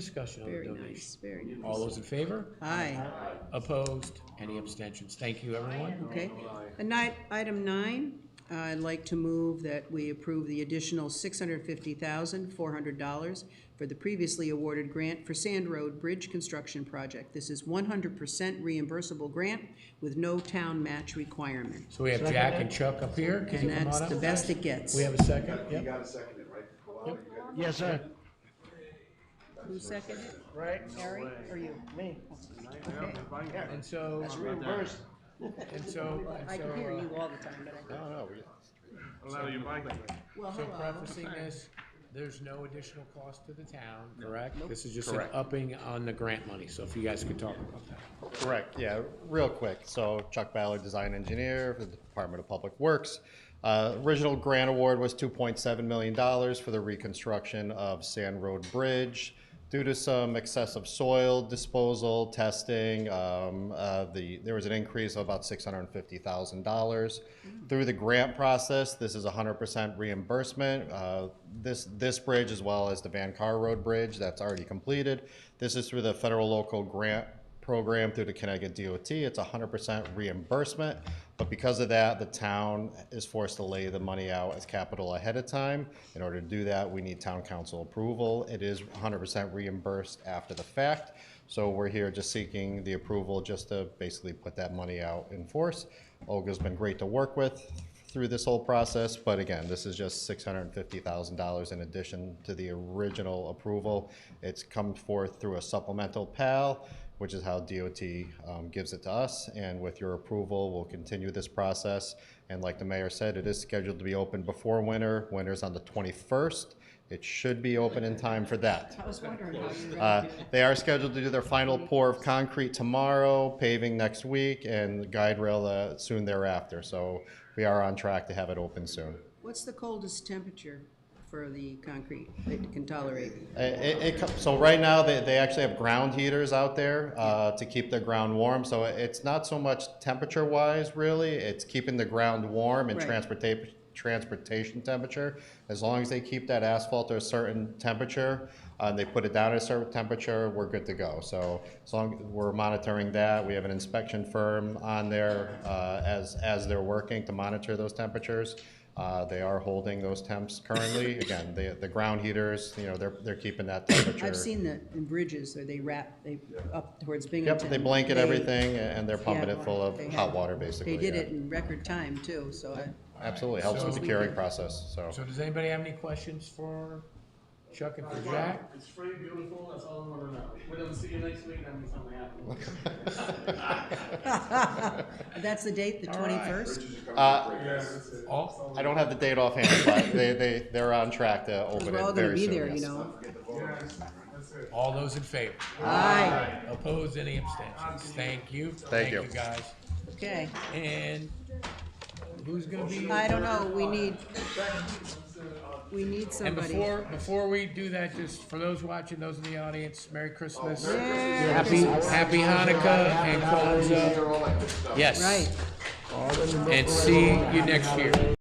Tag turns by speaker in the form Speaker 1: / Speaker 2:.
Speaker 1: Discussion on the
Speaker 2: Very
Speaker 1: donation.
Speaker 2: nice, very nice.
Speaker 1: All those in favor?
Speaker 2: Aye,
Speaker 1: Opposed? Any abstentions? Thank you, everyone.
Speaker 2: okay. And night, item nine, I'd like to move that we approve the additional six hundred fifty thousand, four hundred dollars for the previously awarded grant for Sand Road Bridge Construction Project. This is one hundred percent reimbursable grant with no town match requirement.
Speaker 1: So we have Jack and Chuck up here. Can
Speaker 2: And
Speaker 1: you come
Speaker 2: that's
Speaker 1: on
Speaker 2: the
Speaker 1: up?
Speaker 2: best it gets.
Speaker 1: We have a second?
Speaker 3: You
Speaker 1: Yep.
Speaker 3: gotta second it, right? Well, you got-
Speaker 4: Yes, sir.
Speaker 2: Who seconded it?
Speaker 4: Right?
Speaker 2: Harry or you?
Speaker 4: Me.
Speaker 2: Okay.
Speaker 1: And so, um,
Speaker 4: Reimbursed.
Speaker 1: and so, and
Speaker 2: I
Speaker 1: so,
Speaker 2: can hear
Speaker 1: uh,
Speaker 2: you all the time, but I.
Speaker 3: Allow your mic.
Speaker 2: Well,
Speaker 1: so
Speaker 2: hello.
Speaker 1: prefacing this, there's no additional cost to the town, correct? This is just an upping on the grant money. So if you guys could talk about that.
Speaker 5: Correct, yeah, real quick. So Chuck Ballard, design engineer for the Department of Public Works. Uh, Original grant award was $2.7 million for the reconstruction of Sand Road Bridge. Due to some excessive soil disposal, testing, um, uh, the, there was an increase of about $650,000. Through the grant process, this is 100% reimbursement. Uh, This, this bridge, as well as the Van Car Road Bridge, that's already completed. This is through the federal local grant program through the Connecticut DOT. It's hundred percent reimbursement, but because of that, the town is forced to lay the money out as capital ahead of time. In order to do that, we need town council approval. It is hundred percent reimbursed after the fact. So we're here just seeking the approval just to basically put that money out in force. Olga's been great to work with through this whole process, but again, this is just six hundred and fifty thousand dollars in addition to the original approval. It's come forth through a supplemental PAL, which is how DOT um, gives it to us, and with your approval, we'll continue this process. And like the mayor said, it is scheduled to be open before winter. Winter's on the twenty-first. It should be open in time for that.
Speaker 2: I was wondering how you read.
Speaker 5: Uh, They are scheduled to do their final pour of concrete tomorrow, paving next week, and guide rail uh, soon thereafter. So we are on track to have it open soon.
Speaker 2: What's the coldest temperature for the concrete that it can tolerate?
Speaker 5: Uh, it- it co- so right now, they, they actually have ground heaters out there uh, to keep the ground warm. So it's not so much temperature-wise, really. It's keeping the ground warm and
Speaker 2: Right.
Speaker 5: transportation transportation temperature. As long as they keep that asphalt at a certain temperature, uh, they put it down at a certain temperature, we're good to go. So as long we're monitoring that, we have an inspection firm on there uh, as as they're working to monitor those temperatures. Uh, they are holding those temps currently. Again, the, the ground heaters, you know, they're, they're keeping that temperature.
Speaker 2: I've seen that in bridges, or they wrap, they, up towards Binghamton.
Speaker 5: Yep, they blanket
Speaker 2: they-
Speaker 5: everything and they're pumping
Speaker 2: yeah,
Speaker 5: it full of
Speaker 2: they
Speaker 5: hot
Speaker 2: have-
Speaker 5: water, basically.
Speaker 2: They did
Speaker 5: yeah.
Speaker 2: it in record time too, so I,
Speaker 5: Absolutely, helps with
Speaker 1: So-
Speaker 5: the curing process, so.
Speaker 1: So does anybody have any questions for Chuck and for Jack?
Speaker 6: It's free, beautiful, that's all I wanna know. We're gonna see you next week, that means something happened.
Speaker 2: that's the date, the twenty-first?
Speaker 5: Uh,
Speaker 1: All,
Speaker 5: I don't have the date offhand, but they, they, they're on track to open
Speaker 2: We're
Speaker 5: it
Speaker 2: all gonna
Speaker 5: very
Speaker 2: be
Speaker 5: soon,
Speaker 2: there, you
Speaker 5: yes.
Speaker 2: know.
Speaker 1: all those in favor?
Speaker 2: Aye,
Speaker 1: Opposed, any abstentions? Thank you.
Speaker 5: you.
Speaker 1: Thank you, guys.
Speaker 2: okay.
Speaker 1: And who's gonna be?
Speaker 2: I don't know, we need, we need
Speaker 1: And
Speaker 2: somebody.
Speaker 1: before, before we do that, just for those watching, those in the audience, Merry Christmas.
Speaker 2: Yeah,
Speaker 1: Happy, happy Hanukkah and Kwanzaa.
Speaker 3: All that good stuff.
Speaker 1: Yes.
Speaker 2: right.
Speaker 1: And see you next year.